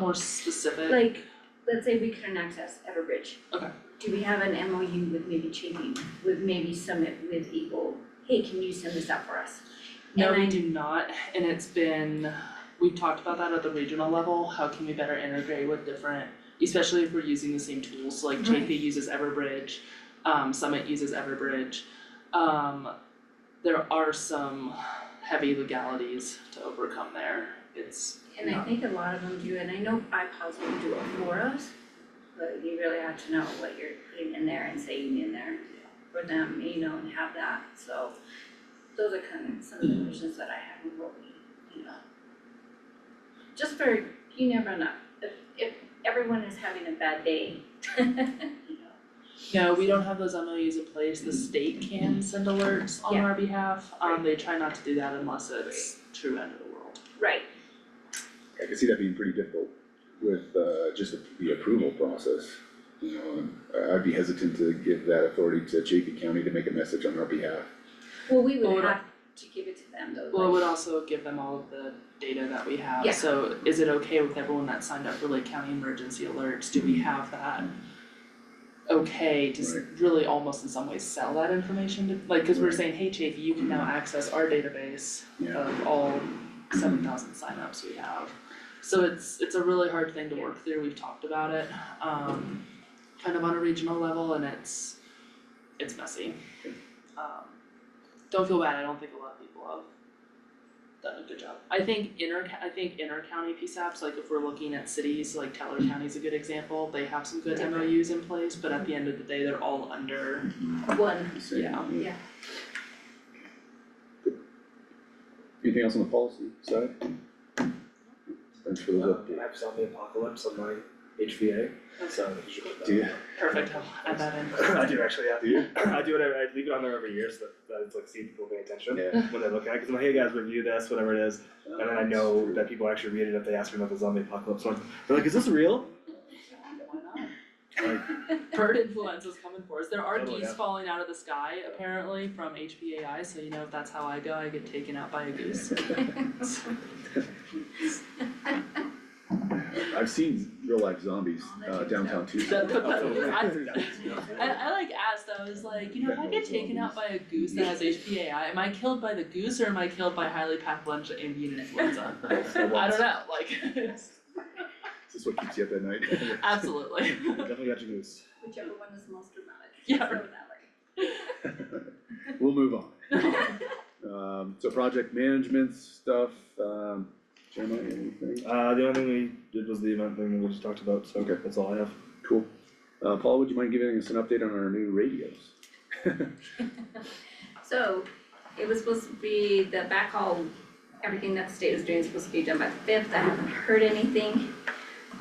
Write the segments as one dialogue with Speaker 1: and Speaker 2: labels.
Speaker 1: more specific?
Speaker 2: Like, let's say we couldn't access Everbridge.
Speaker 1: Okay.
Speaker 2: Do we have an MOU with maybe Chafee, with maybe Summit, with Eagle? Hey, can you send this out for us?
Speaker 1: No,
Speaker 2: and
Speaker 1: we
Speaker 2: I-
Speaker 1: do not, and it's been, we've talked about that at the regional level, how can we better integrate with different, especially if we're using the same tools, so like
Speaker 2: Right.
Speaker 1: JP uses Everbridge, um, Summit uses Everbridge. Um, there are some heavy legalities to overcome there, it's,
Speaker 2: And I
Speaker 1: No.
Speaker 2: think a lot of them do, and I know iPods will do it for us, but you really have to know what you're putting in there and saying in there for them, you know, and have that, so those are kind of some of the visions that I have and what we, you know. Just for, you never know, if if everyone is having a bad day, you know,
Speaker 1: no, we don't have those MOUs in place, the state can send alerts on
Speaker 2: Yeah.
Speaker 1: our behalf, um, they try not to do that unless it's true end of the world.
Speaker 2: right,
Speaker 3: I can see that being pretty difficult with uh just the approval process. You know, and I- I'd be hesitant to give that authority to Chaffey County to make a message on our behalf.
Speaker 2: well, we
Speaker 1: Well, what
Speaker 2: would
Speaker 1: I-
Speaker 2: have to give it to them though,
Speaker 1: Well, it
Speaker 2: like-
Speaker 1: would also give them all of the data that we
Speaker 2: Yeah.
Speaker 1: have, so is it okay with everyone that signed up for Lake County emergency alerts, do we have that? Okay, to s- really almost in some ways sell that information to, like, cause we're
Speaker 3: Right.
Speaker 1: saying, hey Chafee, you can now access our database
Speaker 3: Yeah.
Speaker 1: of all seven thousand signups we have. So it's, it's a really hard thing to work through, we've talked about it, um, kind of on a regional level and it's, it's messy. Um, don't feel bad, I don't think a lot of people have done a good job. I think inter, I think inter-county PSAPs, like if we're looking at cities, like Teller County's a good example, they have some good MOUs in place, but at the end of the day, they're all under,
Speaker 2: one,
Speaker 3: So,
Speaker 1: Yeah.
Speaker 2: yeah.
Speaker 3: Anything else on the policy side? Thanks for those
Speaker 4: Um, I
Speaker 3: updates.
Speaker 4: have zombie apocalypse on my HVA, so you should put that.
Speaker 3: Do you,
Speaker 1: perfect, I'll add that in.
Speaker 4: I do actually, yeah.
Speaker 3: do you?
Speaker 4: I do it, every- I leave it on there every year so that, that it's like see people pay attention
Speaker 3: Yeah.
Speaker 4: when they look at it, cause I'm like, hey guys, review this, whatever it is. And then I know that people actually read it if they ask me about the zombie apocalypse one. They're like, is this real?
Speaker 1: Why not?
Speaker 3: Like,
Speaker 1: bird influenza's coming for us. There are
Speaker 4: Oh,
Speaker 1: geese
Speaker 4: yeah.
Speaker 1: falling out of the sky apparently from HPAI, so you know if that's how I go, I get taken out by a goose.
Speaker 3: I've seen real life zombies uh downtown Tucson.
Speaker 1: I, I like asked, I was like, you know, if I get taken out by a goose that has HPAI, am I killed by the goose or am I killed by highly pathological avian influenza? I don't know, like,
Speaker 3: Is this what keeps you up at night?
Speaker 1: Uh, absolutely.
Speaker 4: Definitely got your goose.
Speaker 2: Whichever one is most dramatic,
Speaker 1: Yeah.
Speaker 2: so that way.
Speaker 3: We'll move on. Um, so project management stuff, um, Jeremiah, anything?
Speaker 4: Uh, the only thing we did was the event thing that we just talked about, so
Speaker 3: Okay.
Speaker 4: that's all I have.
Speaker 3: Cool. Uh, Paul, would you mind giving us an update on our new radios?
Speaker 2: So it was supposed to be the backhaul, everything that the state was doing is supposed to be done by the fifth, I haven't heard anything.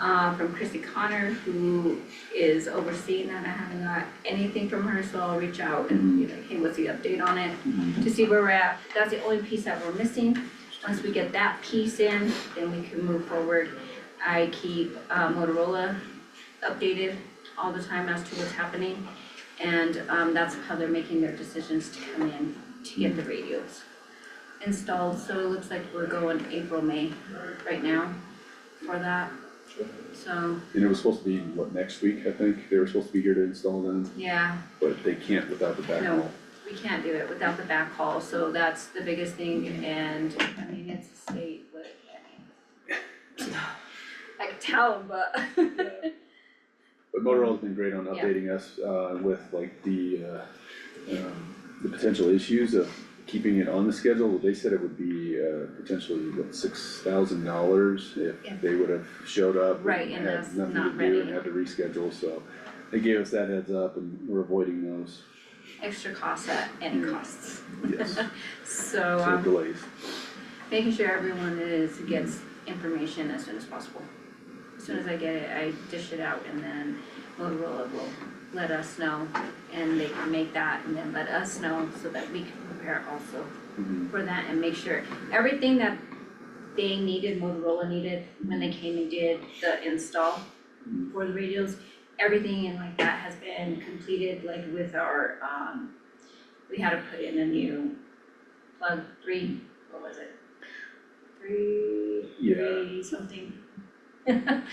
Speaker 2: Uh, from Chrissy Connor, who is overseeing that, I haven't got anything from her, so I'll reach out and be like, hey, what's the update on it? To see where we're at, that's the only piece that we're missing, once we get that piece in, then we can move forward. I keep uh, Motorola updated all the time as to what's happening. And um that's how they're making their decisions to come in to get the radios installed, so it looks like we're going April, May right now for that. So,
Speaker 3: And it was supposed to be, what, next week, I think? They were supposed to be here to install them,
Speaker 2: yeah,
Speaker 3: but they can't without the backhaul.
Speaker 2: No. we can't do it without the backhaul, so that's the biggest thing and I mean, it's a state, but I mean. I could tell them, but
Speaker 3: But Motorola's been great on
Speaker 2: Yeah.
Speaker 3: updating us, uh, with like the, uh, um, the potential issues of keeping it on the schedule. They said it would be, uh, potentially, what, six thousand dollars
Speaker 2: Yeah.
Speaker 3: if they would have showed up.
Speaker 2: Right, and that's
Speaker 3: Had nothing
Speaker 2: not
Speaker 3: to do and
Speaker 2: ready.
Speaker 3: had to reschedule, so they gave us that heads up and we're avoiding those,
Speaker 2: extra costs at any costs,
Speaker 3: yes,
Speaker 2: so
Speaker 3: so
Speaker 2: um
Speaker 3: delays.
Speaker 2: making sure everyone is, gets information as soon as possible. As soon as I get it, I dish it out and then Motorola will let us know and they can make that and then let us know so that we can prepare also
Speaker 3: Mhm.
Speaker 2: for that and make sure everything that they needed, Motorola needed, when they came and did the install for the radios, everything and like that has been completed, like with our, um, we had to put in a new plug three, what was it? Three,
Speaker 3: Yeah.
Speaker 2: three something.